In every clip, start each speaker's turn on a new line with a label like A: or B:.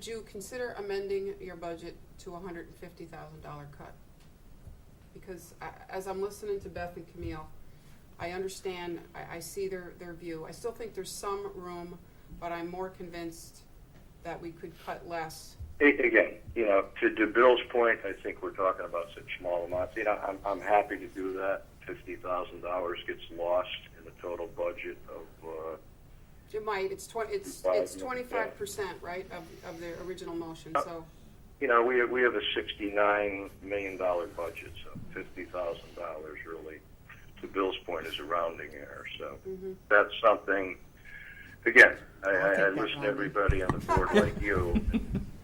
A: Would you consider amending your budget to a hundred and fifty thousand dollar cut? Because I, as I'm listening to Beth and Camille, I understand, I, I see their, their view. I still think there's some room, but I'm more convinced that we could cut less.
B: A- Again, you know, to, to Bill's point, I think we're talking about such small amounts. You know, I'm, I'm happy to do that. Fifty thousand dollars gets lost in the total budget of, uh,
A: You might, it's twen- it's,
B: Five,
A: it's
B: yeah.
A: twenty-five percent, right, of, of their original motion,
B: Uh,
A: so.
B: you know, we, we have a sixty-nine million dollar budget, so fifty thousand dollars really, to Bill's point, is a rounding error. So
A: mhm.
B: that's something, again, I,
C: Mm-hmm. I'll
B: I, I
C: take
B: listen
C: that
B: to
C: rounding.
B: everybody on the board like you.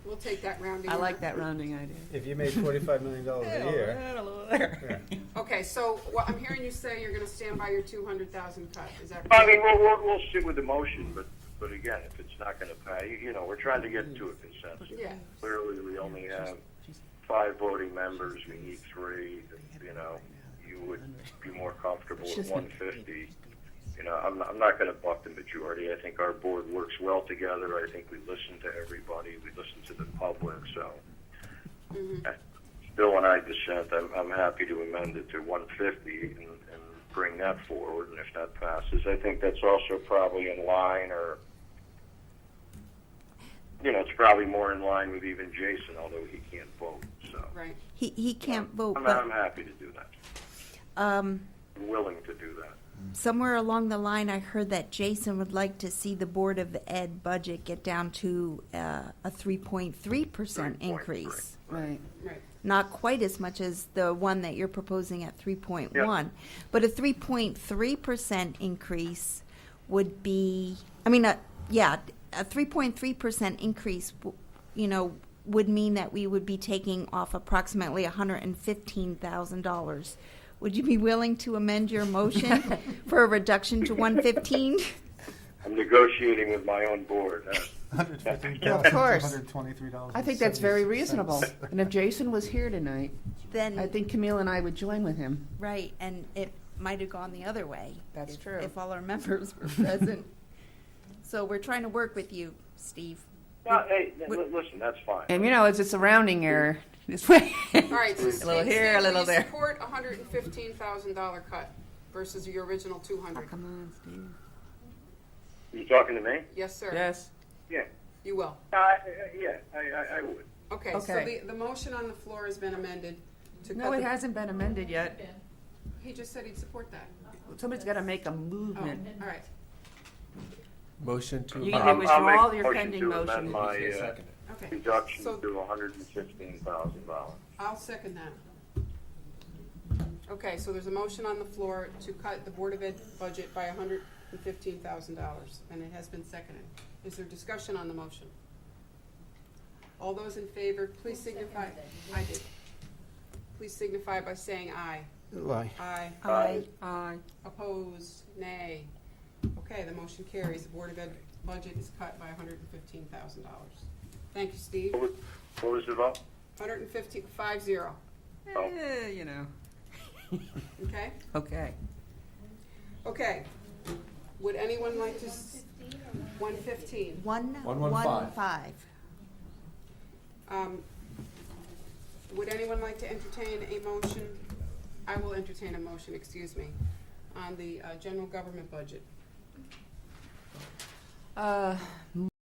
A: We'll take that rounding.
C: I
A: error.
C: like that rounding idea.
D: If you made forty-five million dollars a year,
A: Okay, so what I'm hearing you say, you're gonna stand by your two hundred thousand cut, is that?
B: I mean, we'll, we'll, we'll sit with the motion, but, but again, if it's not going to pass, you- you know, we're trying to get to a consensus.
A: Yeah,
B: Clearly, we only have five voting members, we need three, you know, you would be more comfortable with one fifty. You know, I'm, not- I'm not going to buck the majority, I think our board works well together, I think we listen to everybody, we listen to the public, so.
A: Mhm.
B: Bill and I dissent, I'm, I'm happy to amend it to one fifty and, and bring that forward, and if that passes, I think that's also probably in line or, you know, it's probably more in line with even Jason, although he can't vote, so.
A: right.
E: He, he can't vote,
B: I'm, I'm
E: but
B: happy to do that,
E: um,
B: I'm willing to do that.
E: somewhere along the line, I heard that Jason would like to see the Board of Ed budget get down to uh, a 3.3%
B: 3.3.
E: increase.
C: Right.
A: Right.
E: Not quite as much as the one that you're proposing at 3.1. But a 3.3% increase would be, I mean, a, yeah, a 3.3% increase, w- you know, would mean that we would be taking off approximately $115,000. Would you be willing to amend your motion for a reduction to 115?
B: I'm negotiating with my own board, huh?
D: hundred fifteen
C: Yeah, of
D: thousand, two
C: course.
D: hundred twenty-three dollars.
C: I think that's very reasonable. And if Jason was here tonight,
E: Then,
C: I think Camille and I would join with him.
E: right, and it might have gone the other way.
C: That's
E: if-
C: true.
E: If all our members were present. So we're trying to work with you, Steve.
B: No, hey, li- li- listen, that's fine.
C: And you know, it's, it's a rounding error this way.
A: All right, so
C: A little
A: Stan,
C: here, a
A: Stan,
C: little
A: will you
C: there.
A: support a hundred and fifteen thousand dollar cut versus your original two hundred?
C: Come on, Steve.
B: You talking to me?
A: Yes, sir,
C: Yes.
B: Yeah,
A: you will.
B: I, I- yeah, I, I, I would.
A: Okay, so the,
C: Okay.
A: the motion on the floor has been amended to cut
C: No, it
A: the-
C: hasn't been amended yet.
A: He just said he'd support that.
C: Somebody's got to make a
A: Oh, all
C: movement.
A: right.
F: Motion to
C: You
F: amend.
C: can
B: I'll- I'll make a
C: withdraw your
B: motion
C: pending
B: to amend
C: motion.
B: My,
F: Yes,
B: uh,
F: second it.
A: Okay,
B: reduction
A: So-
B: to hundred and fifteen thousand dollars.
A: I'll second that. Okay, so there's a motion on the floor to cut the Board of Ed budget by hundred and fifteen thousand dollars, and it has been seconded. Is there discussion on the motion? All those in favor, please signify, I did. Please signify by saying aye.
D: Lie.
A: Aye.
B: Aye.
A: Aye. Opposed, nay. Okay, the motion carries. The Board of Ed budget is cut by hundred and fifteen thousand dollars. Thank you, Steve.
B: What was, what was the vote?
A: Hundred and fifteen, five zero,
C: Eh, You know,
A: okay?
C: okay.
A: Okay. Would anyone like to? One fifteen.
E: One,
F: One, one,
E: one,
F: five.
E: five.
A: Um, would anyone like to entertain a motion? I will entertain a motion, excuse me, on the, uh, general government budget.
C: Uh,